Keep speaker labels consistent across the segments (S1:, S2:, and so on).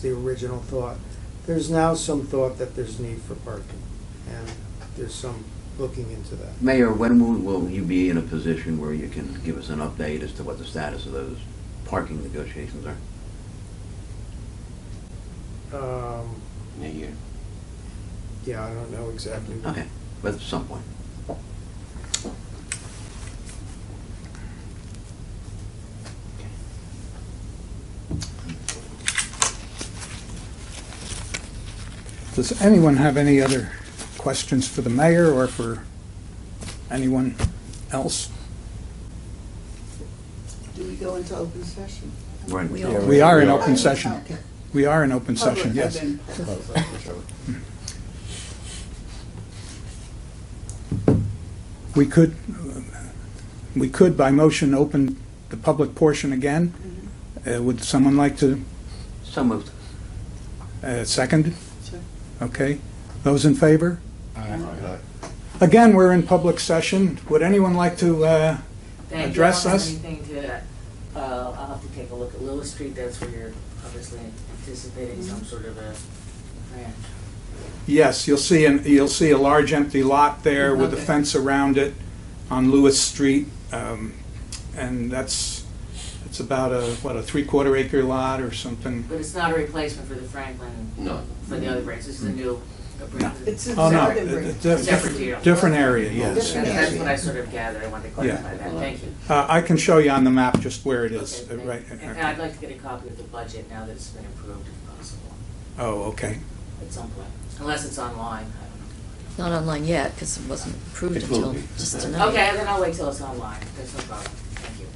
S1: the original thought. There's now some thought that there's need for parking, and there's some looking into that.
S2: Mayor, when will, will you be in a position where you can give us an update as to what the status of those parking negotiations are?
S1: Um,
S2: In a year.
S1: Yeah, I don't know exactly. when.
S2: Okay, but at some point.
S3: Does anyone have any other questions for the mayor or for anyone else?
S4: Do we go into open session?
S2: Right.
S4: We
S2: Yeah,
S4: are-
S3: We are in
S4: Oh,
S3: open session.
S4: okay.
S3: We are in open session,
S4: Public,
S3: yes.
S4: as in-
S3: We could, we could by motion open the public portion again. Uh, Would someone like to
S2: So moved.
S3: uh, second?
S4: Sure.
S3: Okay. Those in favor? Again, we're in public session. Would anyone like to, uh,
S5: Thank you.
S3: address
S5: I don't have
S3: us?
S5: Anything to, uh, I'll have to take a look at Lewis Street, that's where you're obviously anticipating some sort of a grant.
S3: Yes, you'll see, an- you'll see a large empty lot there with a
S4: Okay.
S3: fence around it on Lewis Street. um, And that's, it's about a, what, a three-quarter acre lot or something?
S5: But it's not a replacement for the Franklin,
S6: No.
S5: for the other branch, this is a new, a branch.
S4: It's a
S3: Oh, no,
S4: separate
S3: it-
S4: room.
S3: it- diff-
S5: Separate deal.
S3: Different area, yes.
S5: That's, that's
S4: Yeah.
S5: what I sort of gathered, I wanted to clarify that, thank you.
S3: Uh, I can show you on the map just where it is,
S5: Okay,
S3: uh,
S5: thank
S3: right?
S5: you. And I'd like to get a copy of the budget now that it's been approved if possible,
S3: Oh, okay.
S5: at some point, unless it's online, I don't know.
S7: Not online yet, because it wasn't approved
S6: It will
S7: until
S6: be.
S7: just tonight.
S5: Okay, then I'll wait till it's online, there's no problem, thank you.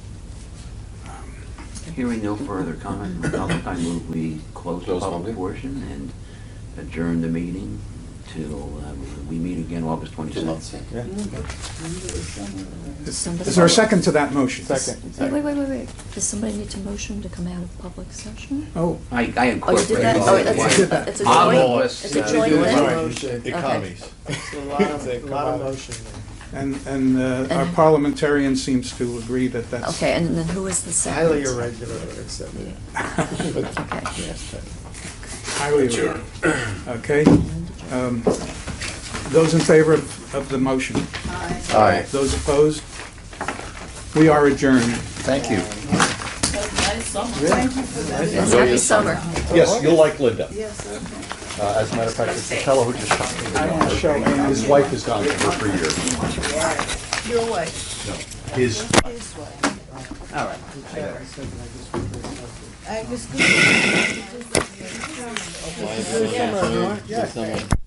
S3: Um,
S2: Hearing no further comment, from the public, I move we close the
S6: Close
S2: public
S6: public.
S2: portion and adjourn the meeting till uh, we meet again August twenty-sixth.
S3: Is
S7: Somebody-
S3: is there a second to that motion?
S7: Wait, wait, wait, wait, wait. Does somebody need to motion to come out of public session?
S3: Oh,
S2: I, I
S7: Oh, you did
S2: incorporated.
S7: that?
S2: it.
S7: Oh, that's,
S3: did that.
S7: it's a
S2: I'll
S7: joint,
S2: always,
S7: it's a
S2: uh,
S7: joint
S2: do it.
S7: thing?
S1: Motion.
S7: Economies.
S1: It's a lot of, a lot of motion
S3: and, and uh, our
S7: And-
S3: parliamentarian seems to agree that that's.
S7: Okay, and then who is the
S1: there.
S7: second?
S1: Highly irregular, except.
S7: Okay.
S3: Highly irregular. Okay. Um, Those in favor of of the motion?
S4: Aye.
S6: Aye.
S3: Those opposed? We are adjourned.
S6: Thank you.
S4: Thank you for that.
S7: Yes, Happy summer.
S6: Yes, you'll like Linda.
S4: Yes, okay.
S6: Uh, As a matter of fact, it's the fellow who just shot me.
S3: Show hands.
S6: His wife has gone to her for years.
S4: Your way.
S6: His
S4: His way.
S2: All right.
S4: Angus, good.
S1: Yeah.